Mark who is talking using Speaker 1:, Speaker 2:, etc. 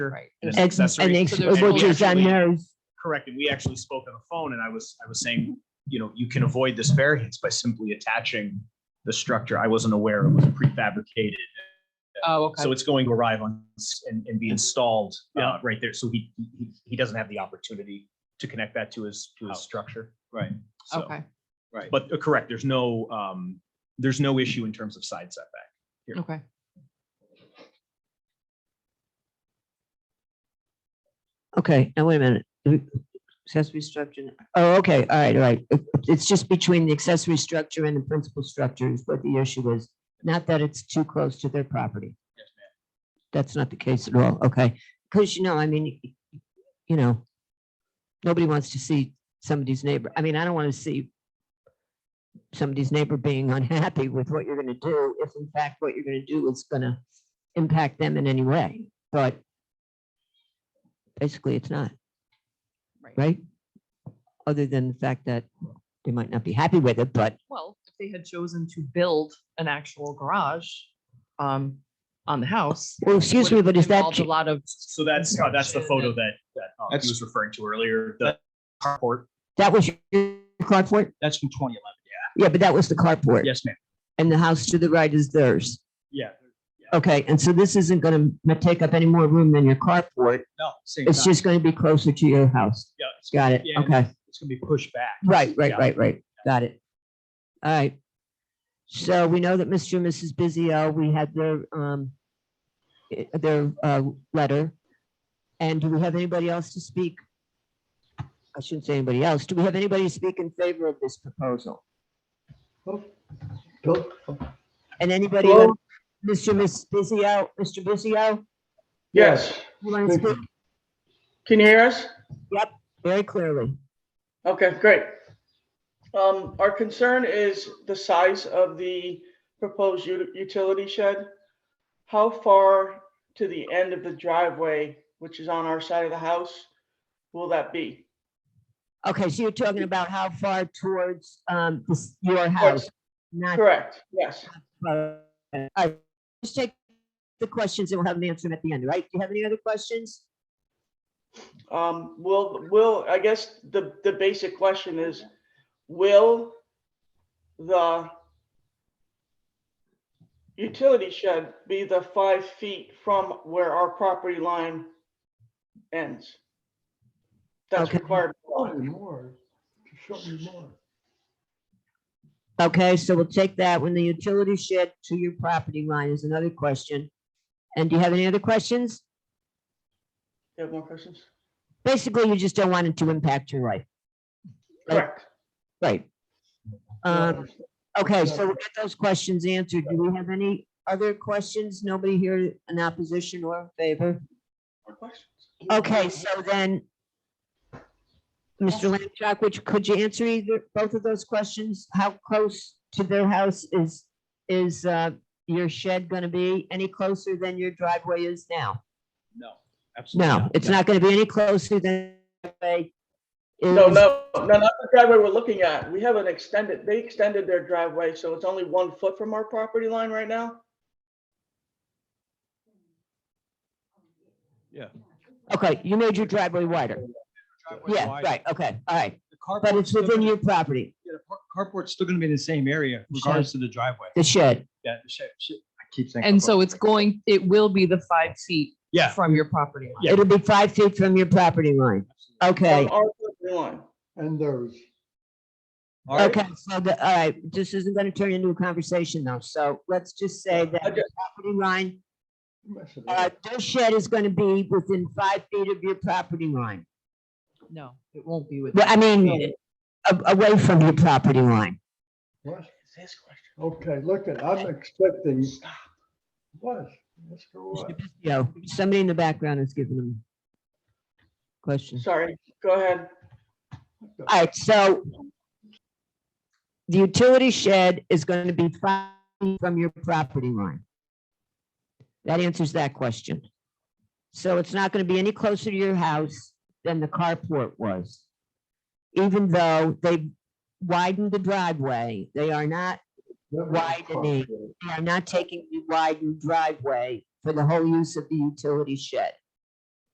Speaker 1: Right.
Speaker 2: and
Speaker 3: Ex-
Speaker 2: accessory.
Speaker 3: an ex-
Speaker 1: So there's
Speaker 3: Which
Speaker 1: no
Speaker 3: is unknown.
Speaker 2: Correct. And we actually spoke on the phone and I was, I was saying, you know, you can avoid this variance by simply attaching the structure. I wasn't aware it was prefabricated.
Speaker 1: Oh, okay.
Speaker 2: So it's going to arrive on s- and, and be installed uh, right there. So he, he, he doesn't have the opportunity to connect that to his, to his
Speaker 4: House.
Speaker 2: structure.
Speaker 4: Right,
Speaker 2: So-
Speaker 1: Okay,
Speaker 4: right.
Speaker 2: But uh, correct, there's no, um, there's no issue in terms of side setback.
Speaker 1: okay.
Speaker 3: Okay, now wait a minute. We- Accessory structure. Oh, okay, all right, all right. It- It's just between the accessory structure and the principal structure is what the issue is. Not that it's too close to their property.
Speaker 4: Yes, ma'am.
Speaker 3: That's not the case at all, okay? Because, you know, I mean, you know, nobody wants to see somebody's neighbor. I mean, I don't want to see somebody's neighbor being unhappy with what you're going to do, if in fact what you're going to do is going to impact them in any way. But basically, it's not right? Other than the fact that they might not be happy with it, but
Speaker 1: Well, if they had chosen to build an actual garage um, on the house.
Speaker 3: well, oh,
Speaker 1: would
Speaker 3: excuse me,
Speaker 1: have
Speaker 3: but is that
Speaker 1: involved A lot of,
Speaker 2: So that's, uh, that's the photo that, that uh, he
Speaker 4: That's-
Speaker 2: was referring to earlier, the carport.
Speaker 3: that was your carport?
Speaker 4: That's from twenty eleven.
Speaker 3: Yeah, but that was the carport,
Speaker 2: Yes, ma'am.
Speaker 3: and the house to the right is theirs.
Speaker 2: Yeah.
Speaker 3: Okay, and so this isn't going to take up any more room than your carport.
Speaker 4: No, same
Speaker 3: It's
Speaker 4: time.
Speaker 3: just going to be closer to your house.
Speaker 2: Yeah. it's-
Speaker 3: Got it?
Speaker 2: Yeah, and
Speaker 3: Okay.
Speaker 2: It's gonna be pushed back.
Speaker 3: Right, right,
Speaker 2: Yeah.
Speaker 3: right, right. Got it. All right. So we know that Mr. and Mrs. Bizio, we had their, um, i- their, uh, letter. And do we have anybody else to speak? I shouldn't say anybody else. Do we have anybody to speak in favor of this proposal? And anybody,
Speaker 5: Hello?
Speaker 3: Mr. and Mrs. Bizio, Mr. Bizio,
Speaker 5: Yes,
Speaker 3: you want to speak
Speaker 5: can you hear us?
Speaker 3: very clearly?
Speaker 5: Okay, great. Um, our concern is the size of the proposed u- utility shed. How far to the end of the driveway, which is on our side of the house, will that be?
Speaker 3: Okay, so you're talking about how far towards, um, this- your house, not
Speaker 5: Correct, yes.
Speaker 3: All right, just take the questions and we'll have them answer them at the end, right? Do you have any other questions?
Speaker 5: Um, will, will, I guess the, the basic question is, will the utility shed be the five feet from where our property line ends? That's
Speaker 3: Okay.
Speaker 5: required.
Speaker 6: Show me Oh, more. Show me more.
Speaker 3: Okay, so we'll take that when the utility shed to your property line is another question. And do you have any other questions?
Speaker 5: You have more questions?
Speaker 3: Basically, you just don't want it to impact your life, Right.
Speaker 5: Correct.
Speaker 3: right? Um, okay, so we'll get those questions answered. Do we have any other questions? Nobody here in opposition or in favor?
Speaker 5: More questions?
Speaker 3: Okay, so then, Mr. Lanchak, which, could you answer either, both of those questions? How close to their house is, is uh, your shed going to be? Any closer than your driveway is now?
Speaker 4: No, absolutely.
Speaker 3: No, it's not going to be any closer than. driveway
Speaker 5: No,
Speaker 3: is-
Speaker 5: no, no, not the driveway we're looking at. We have an extended, they extended their driveway, so it's only one foot from our property line right now?
Speaker 3: Okay, you made your driveway wider.
Speaker 4: Driveway's
Speaker 3: Yeah,
Speaker 4: wide.
Speaker 3: right, okay, all right.
Speaker 4: The carport's
Speaker 3: But it's
Speaker 4: still
Speaker 3: within
Speaker 4: gonna-
Speaker 3: your property,
Speaker 4: yeah, the par- Carport's still gonna be in the same area regardless of the driveway.
Speaker 3: the shed.
Speaker 4: Yeah, the shed- shed- I keep saying.
Speaker 1: and
Speaker 4: carport.
Speaker 1: so it's going, it will be the five feet
Speaker 4: Yeah.
Speaker 1: from your property line.
Speaker 3: It'll be five feet from your property line. Okay.
Speaker 5: From our property line.
Speaker 6: And theirs.
Speaker 4: All right.
Speaker 3: Okay, so the, all right, this isn't gonna turn into a conversation though, so let's just say that
Speaker 5: I
Speaker 3: the property line,
Speaker 6: You messed it
Speaker 3: uh,
Speaker 6: up.
Speaker 3: their shed is gonna be within five feet of your property line.
Speaker 1: No, it won't be with.
Speaker 3: Well, I mean, a- away from your property line.
Speaker 6: What?
Speaker 5: This question.
Speaker 6: Okay, look at, I'm expecting. What? Let's go on.
Speaker 3: You know, somebody in the background is giving them questions.
Speaker 5: Sorry, go ahead.
Speaker 3: All right, so the utility shed is gonna be five feet from your property line. That answers that question. So it's not gonna be any closer to your house than the carport was. Even though they widened the driveway, they are not,
Speaker 6: That was
Speaker 3: widening.
Speaker 6: proper.
Speaker 3: they are not taking the widened driveway for the whole use of the utility shed.